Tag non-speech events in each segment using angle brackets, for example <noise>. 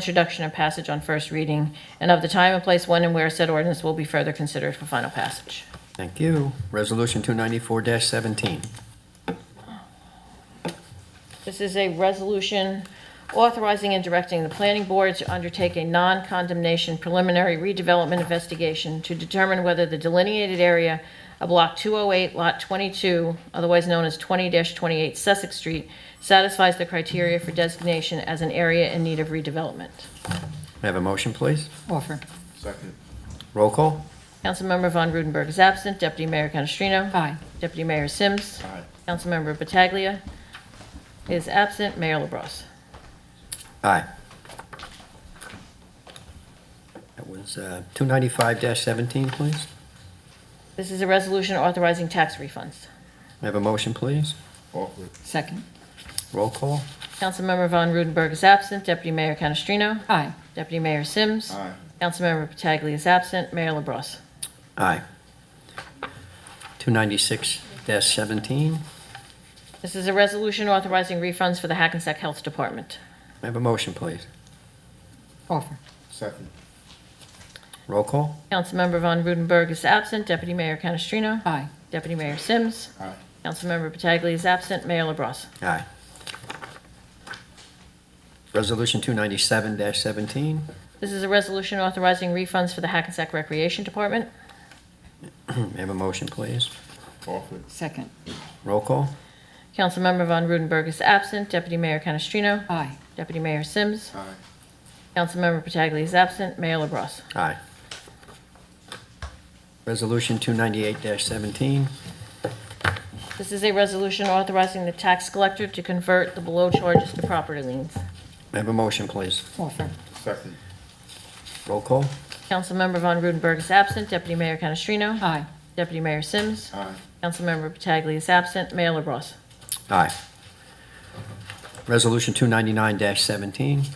introduction and passage on first reading, and of the time and place when and where said ordinance will be further considered for final passage. Thank you. Resolution 294-17. This is a resolution authorizing and directing the planning board to undertake a non-condemnation preliminary redevelopment investigation to determine whether the delineated area of Block 208, Lot 22, otherwise known as 20-28 Sussex Street, satisfies the criteria for designation as an area in need of redevelopment. May I have a motion, please? Offer. Second. Roll call? Councilmember Von Rudenberg is absent. Deputy Mayor Canestrino? Aye. Deputy Mayor Sims? Aye. Councilmember Pataglia is absent. Mayor LaBrus? Aye. That was uh, 295-17, please. This is a resolution authorizing tax refunds. May I have a motion, please? Offer. Second. Roll call? Councilmember Von Rudenberg is absent. Deputy Mayor Canestrino? Aye. Deputy Mayor Sims? Aye. Councilmember Pataglia is absent. Mayor LaBrus? Aye. 296-17. May This is a resolution authorizing refunds for the Hackensack Health Department. I have a motion, please? Offer. Second. Roll call? Councilmember Von Rudenberg is absent. Deputy Mayor Canestrino? Aye. Deputy Mayor Sims? Aye. Councilmember Pataglia is absent. Mayor LaBrus? Aye. Resolution 297-17. May <clears throat> This is a resolution authorizing refunds for the Hackensack Recreation Department. I have a motion, please? Offer. Second. Roll call? Councilmember Von Rudenberg is absent. Deputy Mayor Canestrino? Aye. Deputy Mayor Sims? Aye. Councilmember Pataglia is absent. Mayor LaBrus? Aye. Resolution 298-17. This is a resolution authorizing the tax collector to convert the below charges to property liens. May I have a motion, please? Offer. Second. Roll call? Councilmember Von Rudenberg is absent. Deputy Mayor Canestrino? Aye. Deputy Mayor Sims? Aye. Councilmember Pataglia is absent. Mayor LaBrus? Aye. Resolution 299-17.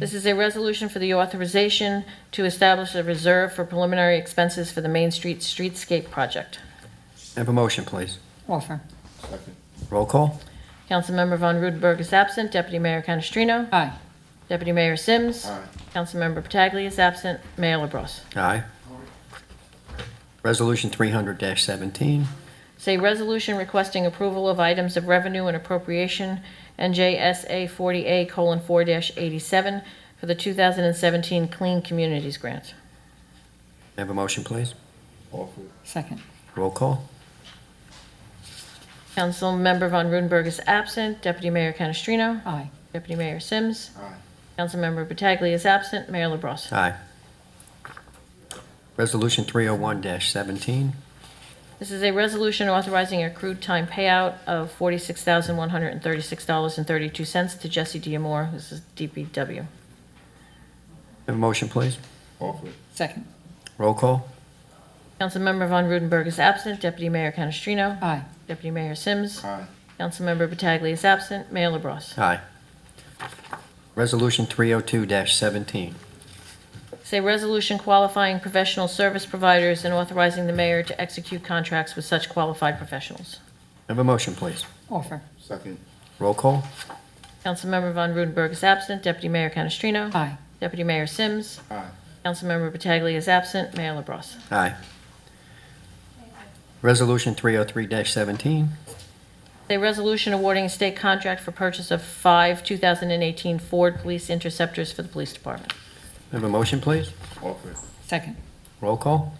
This is a resolution for the authorization to establish a reserve for preliminary expenses for the Main Street Streetscape Project. May I have a motion, please? Offer. Second. Roll call? Councilmember Von Rudenberg is absent. Deputy Mayor Canestrino? Aye. Deputy Mayor Sims? Aye. Councilmember Pataglia is absent. Mayor LaBrus? Aye. Resolution 300-17. May It's a resolution requesting approval of items of revenue and appropriation, NJSA 40A:4-87, for the 2017 Clean Communities Grant. I have a motion, please? Offer. Second. Roll call? Councilmember Von Rudenberg is absent. Deputy Mayor Canestrino? Aye. Deputy Mayor Sims? Aye. Councilmember Pataglia is absent. Mayor LaBrus? Aye. Resolution 301-17. May This is a resolution authorizing accrued time payout of $46,136.32 to Jesse Diamore. This is DPW. I Have a motion, please? Offer. Second. Roll call? Councilmember Von Rudenberg is absent. Deputy Mayor Canestrino? Aye. Deputy Mayor Sims. Aye. Councilmember Pataglia is absent. Mayor LaBrus. Aye. Resolution 302-17. It's a resolution qualifying professional service providers and authorizing the mayor to execute contracts with such qualified professionals. Have a motion, please. Offer. Second. Roll call? Councilmember Von Rudenberg is absent. Deputy Mayor Canestrino. Aye. Deputy Mayor Sims. Aye. Councilmember Pataglia is absent. Mayor LaBrus. Aye. Resolution 303-17. It's a resolution awarding a state contract for purchase of five 2018 Ford Police Interceptors for the police department. Have a motion, please? Offer. Second. Roll call?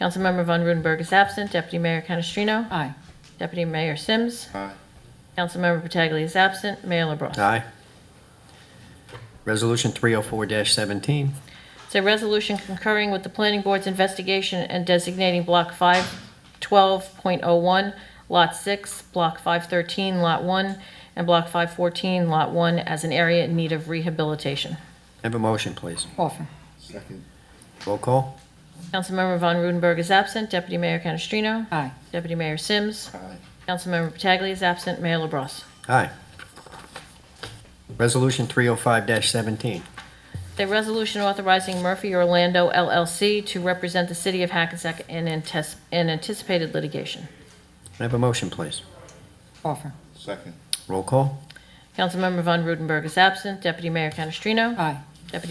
Councilmember Von Rudenberg is absent. Deputy Mayor Canestrino. Aye. Deputy Mayor Sims. Aye. Councilmember Pataglia is absent. Mayor LaBrus. Aye. Resolution 304-17. It's a resolution concurring with the planning board's investigation and designating Block 512.01, Lot 6, Block 513, Lot 1, and Block 514, Lot 1 as an area in need of rehabilitation. Have a motion, please? Offer. Second. Roll call? Councilmember Von Rudenberg is absent. Deputy Mayor Canestrino? Aye. Deputy Mayor Sims? Aye. Councilmember Pataglia is absent. Mayor LaBrus. Aye. Resolution 305-17. The resolution authorizing Murphy Orlando LLC to represent the city of Hackensack in antes- in anticipated litigation. Have a motion, please? Offer. Second. Roll call? Councilmember Von Rudenberg is absent. Deputy Mayor Canestrino? Aye.